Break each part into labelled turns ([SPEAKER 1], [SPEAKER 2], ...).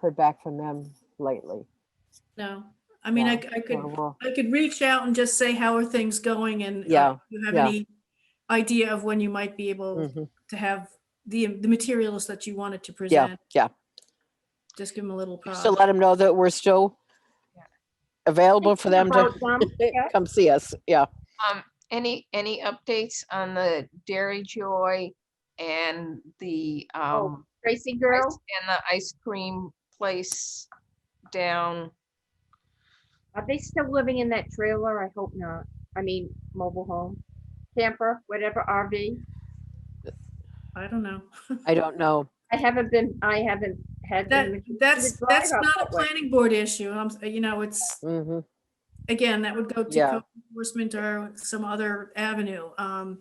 [SPEAKER 1] heard back from them lately.
[SPEAKER 2] No, I mean, I, c- I could,
[SPEAKER 1] Well, well,
[SPEAKER 2] I could reach out and just say, how are things going? And uh,
[SPEAKER 1] Yeah,
[SPEAKER 2] do you have
[SPEAKER 1] yeah.
[SPEAKER 2] any idea of when you might be able
[SPEAKER 1] mhm.
[SPEAKER 2] to have the, the materials that you wanted to
[SPEAKER 1] Yeah,
[SPEAKER 2] present?
[SPEAKER 1] yeah.
[SPEAKER 2] Just give them a little
[SPEAKER 1] Just
[SPEAKER 2] prod.
[SPEAKER 1] to let them know that we're still available for them to
[SPEAKER 3] About them, yeah.
[SPEAKER 1] come see us. Yeah.
[SPEAKER 4] Um, any, any updates on the Dairy Joy and the, um,
[SPEAKER 3] Tracy
[SPEAKER 4] ice-
[SPEAKER 3] girl,
[SPEAKER 4] and the ice cream place down?
[SPEAKER 3] are they still living in that trailer? I hope not. I mean, mobile home, camper, whatever RV.
[SPEAKER 2] I don't know.
[SPEAKER 1] I don't know.
[SPEAKER 3] I haven't been, I haven't had.
[SPEAKER 2] That,
[SPEAKER 3] them.
[SPEAKER 2] that's,
[SPEAKER 3] drive
[SPEAKER 2] that's
[SPEAKER 3] up
[SPEAKER 2] not a
[SPEAKER 3] that way.
[SPEAKER 2] planning board issue. I'm, s- you know, it's,
[SPEAKER 1] Mhm.
[SPEAKER 2] again, that would go to
[SPEAKER 1] Yeah.
[SPEAKER 2] code enforcement or some other avenue. Um,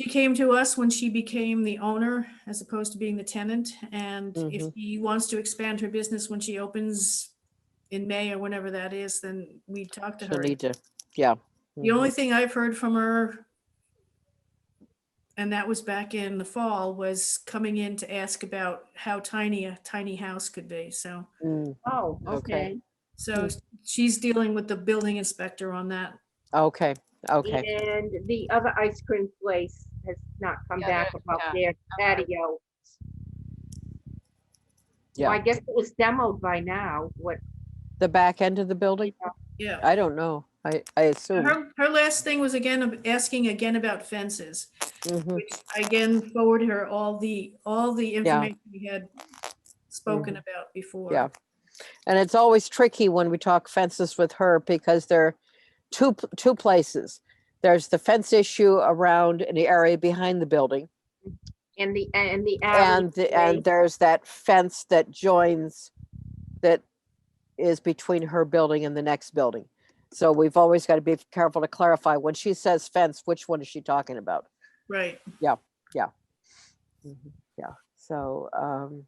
[SPEAKER 2] She came to us when she became the owner as opposed to being the tenant. And if
[SPEAKER 1] Mhm.
[SPEAKER 2] she wants to expand her business when she opens in May or whenever that is, then we talk to
[SPEAKER 1] She'll
[SPEAKER 2] her.
[SPEAKER 1] need to, yeah.
[SPEAKER 2] The
[SPEAKER 1] mhm.
[SPEAKER 2] only thing I've heard from her, and that was back in the fall, was coming in to ask about how tiny a tiny house could be. So,
[SPEAKER 1] Mm,
[SPEAKER 3] Oh,
[SPEAKER 1] Okay.
[SPEAKER 3] okay.
[SPEAKER 2] so
[SPEAKER 1] Mm.
[SPEAKER 2] she's dealing with the building inspector on that.
[SPEAKER 1] Okay, okay.
[SPEAKER 3] And the other ice cream place has not come
[SPEAKER 4] Yeah,
[SPEAKER 3] back
[SPEAKER 4] they're-
[SPEAKER 3] about their
[SPEAKER 4] okay.
[SPEAKER 3] patio.
[SPEAKER 1] Yeah.
[SPEAKER 3] Well, I guess it was demoed by now, what, uh,
[SPEAKER 1] The back end of the building?
[SPEAKER 2] Yeah.
[SPEAKER 1] I don't know. I, I assume.
[SPEAKER 2] Her, her last thing was again, of asking again about fences,
[SPEAKER 1] Mhm,
[SPEAKER 2] which I again forwarded her all the, all the information we had spoken about before.
[SPEAKER 1] Mm. Yeah. And it's always tricky when we talk fences with her because there are two, p- two places. There's the fence issue around an area behind the building
[SPEAKER 3] and the, and the alley.
[SPEAKER 1] and, the- and there's that fence that joins that is between her building and the next building. So we've always got to be careful to clarify when she says fence, which one is she talking about?
[SPEAKER 2] Right.
[SPEAKER 1] Mhm, Yeah, so, um,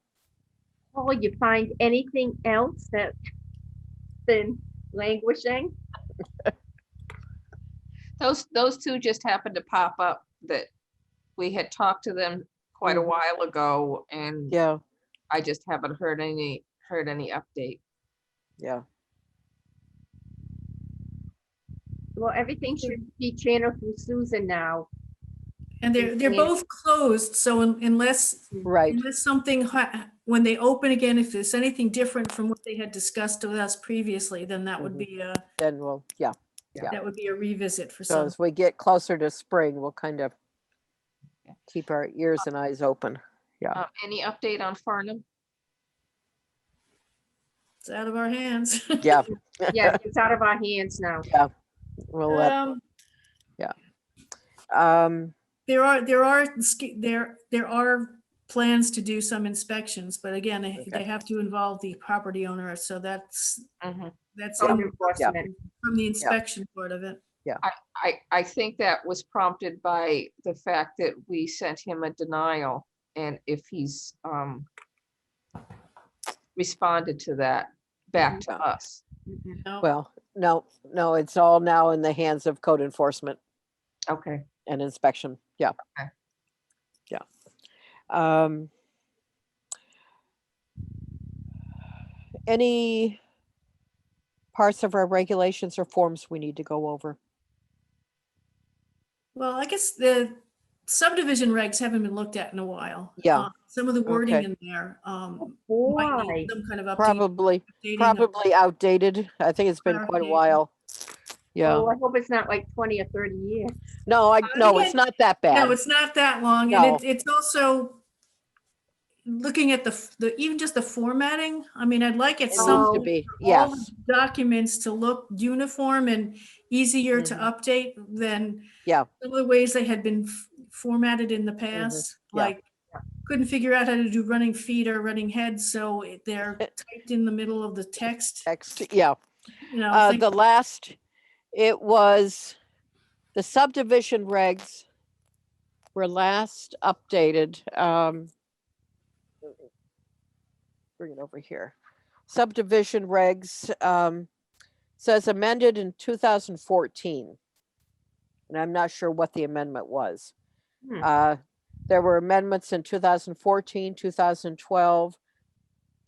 [SPEAKER 3] Paula, you find anything else that been languishing?
[SPEAKER 4] Those, those two just happened to pop up that we had talked to them quite a
[SPEAKER 1] Mhm.
[SPEAKER 4] while ago and
[SPEAKER 1] yeah,
[SPEAKER 4] I just haven't heard any, heard any update.
[SPEAKER 1] yeah.
[SPEAKER 3] Well, everything should be channeled through Susan now.
[SPEAKER 2] And they're, they're
[SPEAKER 3] Yes.
[SPEAKER 2] both closed, so un- unless,
[SPEAKER 1] Right,
[SPEAKER 2] unless something, ha- when they open again, if there's anything different from what they had discussed with us previously, then that would
[SPEAKER 1] Mhm.
[SPEAKER 2] be a,
[SPEAKER 1] then we'll, yeah. Yeah.
[SPEAKER 2] that would be a revisit for
[SPEAKER 1] So
[SPEAKER 2] some.
[SPEAKER 1] as we get closer to spring, we'll kind of
[SPEAKER 4] Yeah.
[SPEAKER 1] keep our ears and eyes open.
[SPEAKER 4] Uh, any update on Farnham?
[SPEAKER 2] It's out of our hands.
[SPEAKER 1] Yeah,
[SPEAKER 3] Yeah, it's out of our hands now.
[SPEAKER 1] we'll let,
[SPEAKER 2] Um,
[SPEAKER 1] um,
[SPEAKER 2] There are, there are, sk- there, there are plans to do some inspections, but again, they- they
[SPEAKER 1] Okay.
[SPEAKER 2] have to involve the property owner, so that's,
[SPEAKER 4] Mhm.
[SPEAKER 2] that's
[SPEAKER 1] Oh,
[SPEAKER 3] Code
[SPEAKER 2] in-
[SPEAKER 3] enforcement.
[SPEAKER 2] from the inspection part of it.
[SPEAKER 4] I, I think that was prompted by the fact that we sent him a denial and if he's, um, responded to that back to
[SPEAKER 1] Yeah.
[SPEAKER 4] us.
[SPEAKER 3] Mhm.
[SPEAKER 2] No,
[SPEAKER 1] well, no, no, it's all now in the hands of code enforcement
[SPEAKER 4] Okay.
[SPEAKER 1] and inspection. Yeah.
[SPEAKER 4] Okay.
[SPEAKER 1] Yeah. Um. Any parts of our regulations or forms we need to go over?
[SPEAKER 2] Well, I guess the subdivision regs haven't been looked at in a while.
[SPEAKER 1] Yeah.
[SPEAKER 2] Uh, Some of the wording
[SPEAKER 1] Okay.
[SPEAKER 2] in there, um, might
[SPEAKER 3] Why?
[SPEAKER 2] need some kind of update.
[SPEAKER 1] Probably,
[SPEAKER 2] updating of-
[SPEAKER 1] probably outdated. I think it's been quite a
[SPEAKER 2] Clarification.
[SPEAKER 1] while. Yeah.
[SPEAKER 3] Oh, I hope it's not like twenty or thirty years.
[SPEAKER 1] No, I, no, it's
[SPEAKER 2] again,
[SPEAKER 1] not that
[SPEAKER 2] No,
[SPEAKER 1] bad.
[SPEAKER 2] it's not that long, and
[SPEAKER 1] No.
[SPEAKER 2] it- it's also looking at the, f- the, even just the formatting, I mean, I'd like it
[SPEAKER 1] It
[SPEAKER 2] some.
[SPEAKER 1] needs
[SPEAKER 3] so-
[SPEAKER 1] to be,
[SPEAKER 2] all the
[SPEAKER 1] yes,
[SPEAKER 2] Documents to look uniform and easier to update than.
[SPEAKER 1] Mm-hmm. Yeah. Mm-hmm.
[SPEAKER 2] Some of the ways they had been f- formatted in the past,
[SPEAKER 1] yeah.
[SPEAKER 2] like couldn't figure out how to do running feet or running heads, so it- they're typed in the middle of the text,
[SPEAKER 1] text, yeah.
[SPEAKER 2] you know.
[SPEAKER 1] Uh,
[SPEAKER 2] things-
[SPEAKER 1] the last, it was, the subdivision regs were last updated, um. Bring it over here. Subdivision regs, um, says amended in two thousand fourteen. And I'm not sure what the amendment was.
[SPEAKER 3] Hmm.
[SPEAKER 1] Uh, there were amendments in 2014, 2012,